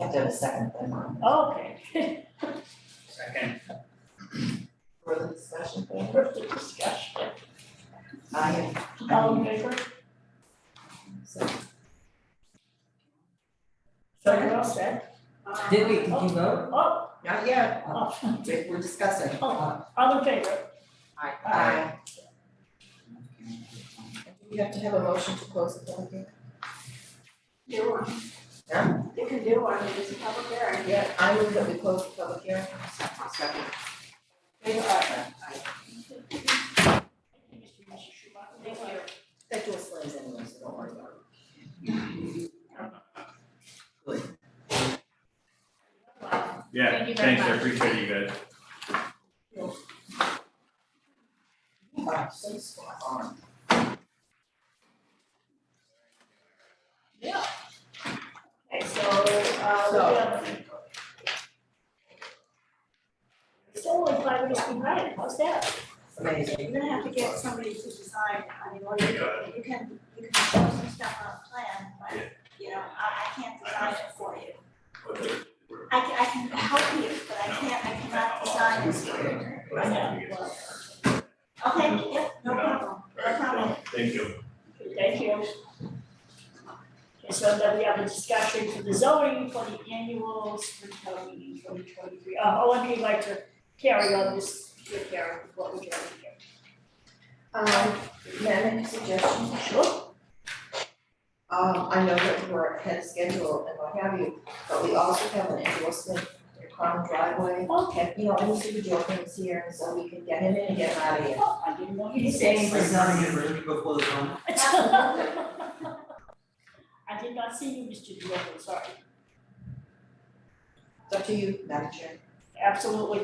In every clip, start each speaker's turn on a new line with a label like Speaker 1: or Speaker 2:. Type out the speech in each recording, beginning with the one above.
Speaker 1: have to have a second then on.
Speaker 2: Oh, Okay.
Speaker 3: Second.
Speaker 1: Further discussion,
Speaker 2: Perfect discussion.
Speaker 1: I am,
Speaker 2: All in favor?
Speaker 1: so,
Speaker 2: So we're all set? Uh,
Speaker 4: Did we, did
Speaker 2: Oh,
Speaker 4: you vote?
Speaker 2: oh,
Speaker 1: not yet,
Speaker 2: oh,
Speaker 1: we- we're discussing.
Speaker 2: Oh. all in favor?
Speaker 1: Aye. Aye. We have to have a motion to close the public hearing?
Speaker 5: Do one.
Speaker 1: Yeah.
Speaker 5: You can do one, it's a public hearing.
Speaker 1: Yeah, I move that we close the public hearing.
Speaker 5: Second.
Speaker 2: They are. Thank you, Mr. Schubach. Thank you.
Speaker 1: That door slams anyway, so don't worry about
Speaker 2: Wow. Thank
Speaker 3: Yeah,
Speaker 2: you very
Speaker 3: thanks, I
Speaker 2: much.
Speaker 3: appreciate you guys.
Speaker 1: it. Wow, so spot on.
Speaker 2: Okay, so, uh, we
Speaker 1: So-
Speaker 2: have. Still only five minutes behind, how's that?
Speaker 1: Amazing.
Speaker 5: You're gonna have to get somebody to design, I mean, what you, you can, you can show some stuff on a plan, but, you know, I, I can't design it for you. I can, I can help you, but I can't, I cannot design this for you.
Speaker 2: I know.
Speaker 5: Okay, yep, no problem, no problem.
Speaker 3: Thank you.
Speaker 2: Thank you. Okay, so then we have a discussion for the zoning for the annual spring town meeting twenty twenty-three. Uh, Owen, would you like to carry on this, your Karen, what would you like to do?
Speaker 1: Um, may I make a suggestion?
Speaker 2: Sure.
Speaker 1: Um, I know that we're ahead of schedule and what have you, but we also have an endorsement for common driveway. Okay. You know, and Mr. Jordan's here, so we can get him in and get him out of here.
Speaker 2: Oh, I didn't want you to say
Speaker 1: Thanks.
Speaker 2: anything.
Speaker 4: before the zone.
Speaker 2: I did not see you, Mr. Diogo, sorry.
Speaker 1: It's up to you, Madam Chair.
Speaker 2: Absolutely.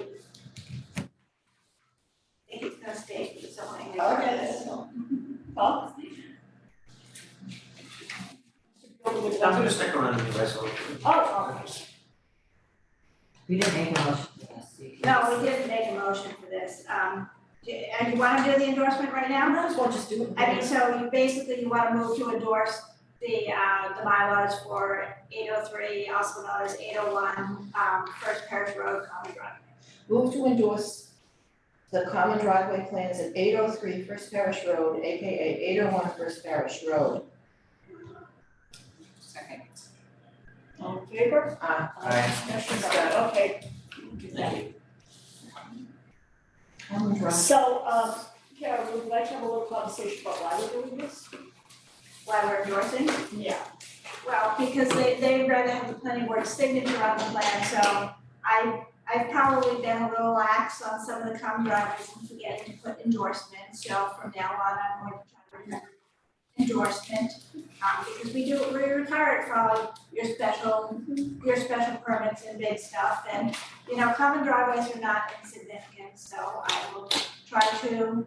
Speaker 5: I think it's gonna stay, it's only.
Speaker 2: Huh? Oh,
Speaker 6: I'm gonna stick around and do myself.
Speaker 2: Oh, okay.
Speaker 4: We didn't make a motion for this. so you can-
Speaker 5: No, we didn't make a motion for this, um, do- and you wanna do the endorsement right now?
Speaker 1: might as well just do it.
Speaker 5: I mean, so you basically, you wanna move to endorse the, uh, the bylaws for eight oh three, also known as eight oh one, um, First Parish Road, Common Drive.
Speaker 1: Move to endorse the common driveway plans at 803 First Parish Road, AKA 801 First Parish Road.
Speaker 4: Second.
Speaker 2: All in favor?
Speaker 1: Uh,
Speaker 6: Aye.
Speaker 2: Discussion done. okay.
Speaker 1: common driveway.
Speaker 2: So, um, Karen, would you like to have a little conversation about why we're doing this?
Speaker 5: Why we're endorsing?
Speaker 2: Yeah.
Speaker 5: Well, because they, they'd rather have the planning board signature on the plan, so I, I've probably been a little lax on some of the common driveways and forgetting to put endorsements, so from now on, I'm going to try to remember endorsement, um, because we do, we retire it from your special, your special permits and big stuff, and, you know, common driveways are not insignificant, so I will try to,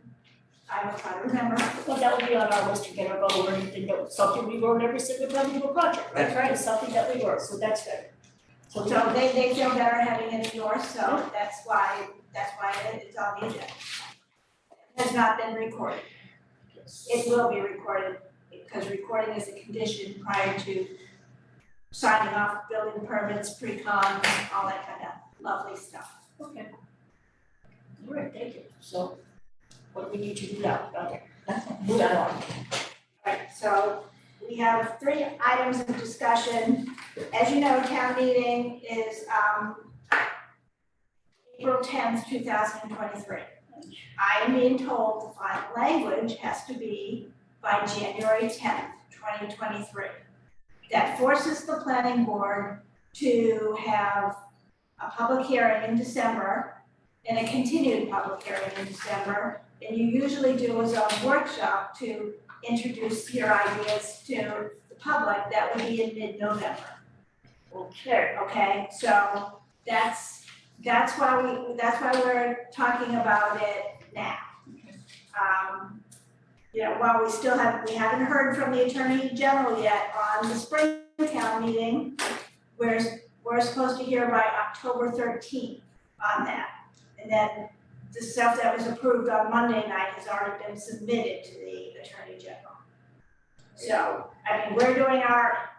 Speaker 5: I will try to remember.
Speaker 2: Well, that would be on our list to get our goal or anything, that- something we learn every single time we do a project, right?
Speaker 6: That's
Speaker 2: It's Something that we learn, so that's good. So we
Speaker 5: So
Speaker 2: don't,
Speaker 5: they, they feel better having it endorsed, so that's why, that's why it- it's on the agenda. It Has not been recorded. It will be recorded, because recording is a condition prior to signing off building permits, pre-con, all that kind of lovely stuff.
Speaker 2: okay. All right, thank you. So what do we need to do now? Okay.
Speaker 1: Move on.
Speaker 5: Right, so we have three items of discussion. As you know, town meeting is, um, April tenth, two thousand and twenty-three. I am being told the final language has to be by January tenth, twenty twenty-three. That forces the planning board to have a public hearing in December and a continued public hearing in December. And you usually do a zone workshop to introduce your ideas to the public, that would be in mid-November,
Speaker 2: Okay.
Speaker 5: okay? So that's, that's why we, that's why we're talking about it now. Um, you know, while we still have, we haven't heard from the Attorney General yet on the spring town meeting, we're, we're supposed to hear by October thirteenth on that. And then the stuff that was approved on Monday night has already been submitted to the Attorney General. So, I mean, we're doing our,